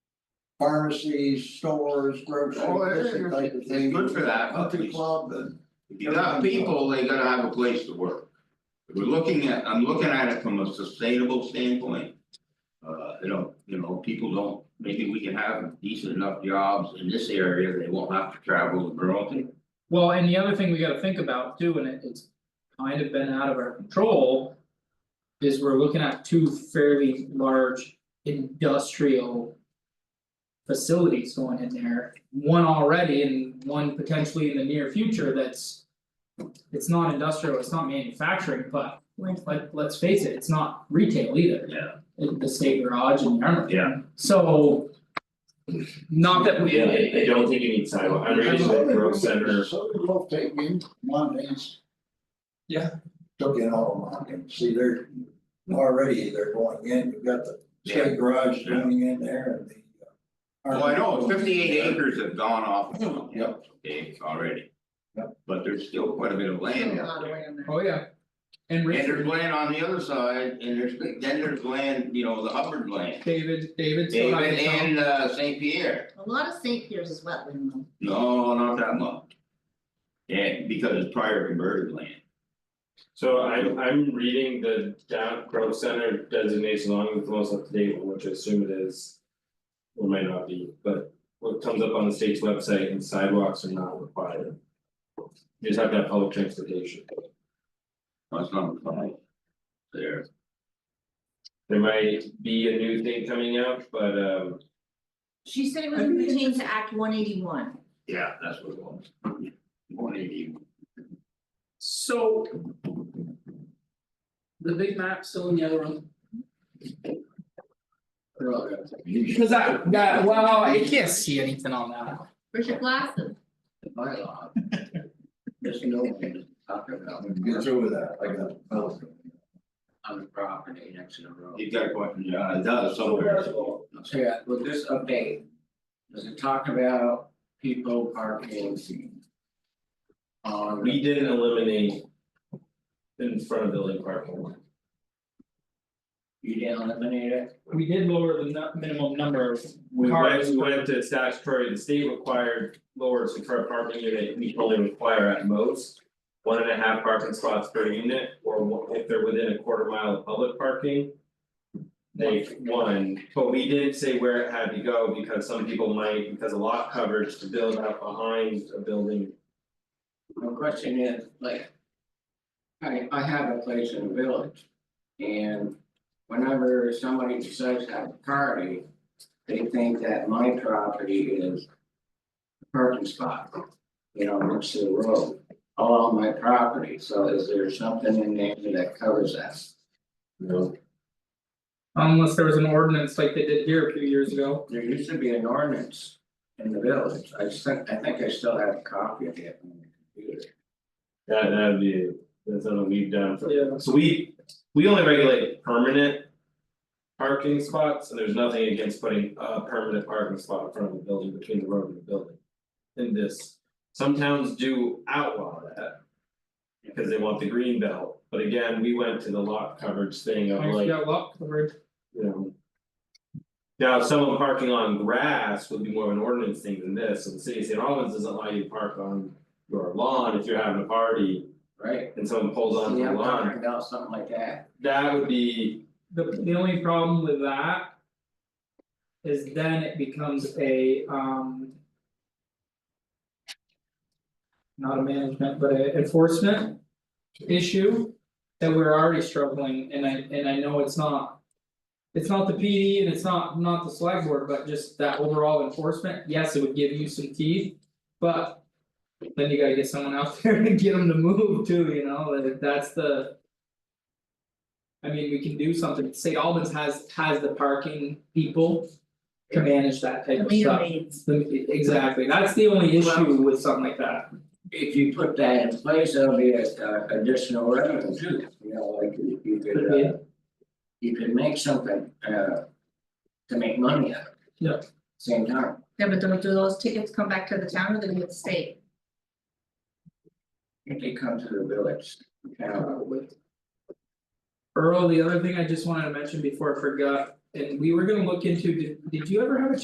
pharmacies, stores, grocery, Oh, it different is. type of It's thing. good for that, but Country we- club and. if you got people, they gotta have a place to work. We're looking at, I'm looking at it from a sustainable standpoint. Uh, you know, you know, people don't, maybe we can have decent enough jobs in this area, they won't have to travel to Burlington. Well, and the other thing we gotta think about too, and it- it's kind of been out of our control. Is we're looking at two fairly large industrial. Facilities going in there, one already and one potentially in the near future that's. It's not industrial, it's not manufacturing, but like, let's face it, it's not retail either, Yeah. the the state garage and Yarmouth. Yeah. So. Not that we. Yeah, I I don't think you need sidewalk, I really like road center, So we both take in Montans. Yeah. Took in all of Montans, see, they're already, they're going in, you've got the Yeah. state garage Yeah. going in there and the. uh, Well, Oh, I know, fifty eight acres have gone off. Yep. Okay, already. Yep. But there's still quite a bit of land A out lot of there. land there. Oh, yeah. And And there's Richard, land on the other side, and there's, then there's land, you know, the Hubbard land, David, David still has David his own. and uh Saint Pierre. A lot of St. Pierce is wetland though. No, not that much. And because it's prior converted land, so I I'm reading the down road center designation along with the most up to date one, which I assume it is. Or might not be, but what comes up on the state's website and sidewalks are not required. You just have to have public transportation, that's not applied. There, there might be a new thing coming out, but um She said it was routine to Act one eighty one. yeah, that's what it was. One eighty, So. The big map still in the other room, because I, that, wow, I I can't see anything on that. Where's your glasses? my lot. Just no one is talking about Get through with that, I got. oh. on the property next to the road. You've got a question, yeah, it does somewhere. So yeah, with this update, does it talk about people parking? On, we didn't eliminate. In front of building parking, you didn't eliminate it, We did lower the nu- minimum number of we went, cars. we went to statutory, the state required lower per parking unit, we only require at most. One and a half parking spots per unit, or one- if they're within a quarter mile of public parking. They one, but we didn't say where it had to go, because some people might, because a lot coverage to build out behind a building. my question is, like. I I have a place in the village. And whenever somebody decides to have a party, they think that my property is. a Parking spot, you know, next to the road, all on my property, so is there something in there that covers that? No. Unless there was an ordinance like they did here a few years ago. There used to be an ordinance in the village, I think, I think I still have a copy of it on the computer. That that'd be, that's something we've done for Yeah. So we, we only regulate permanent. Parking spots, and there's nothing against putting a permanent parking spot in front of the building between the road and the building. In this, some towns do outlaw that. Because they want the green belt, but again, we went to the lot coverage thing of Actually, like, got a lot covered. you know. Now, someone parking on grass would be more of an ordinance thing than this, so the city of St. Albans doesn't allow you to park on your lawn if you're having a party. Right. And someone pulls onto your Yeah, I'm lawn, talking about something like that, that would be The the only problem with that. Is then it becomes a um. Not a management, but a enforcement issue that we're already struggling and I and I know it's not. It's not the PD and it's not not the select board, but just that overall enforcement, yes, it would give you some teeth, but. Then you gotta get someone out there to get them to move too, you know, like that's the. I mean, we can do something, St. Albans has has the parking people to manage that type The of leader stuff. needs. The- Exactly, that's the only issue Well- with something like that. if you put that in place, there'll be a a additional revenue too, you know, like you you could Yeah. uh. You could make something uh to make money out of it. Yeah. Same time, Yeah, but don't do those tickets come back to the town or they go to the state? if they come to the village, uh, with Earl, the other thing I just wanted to mention before I forgot, and we were gonna look into, did did you ever have a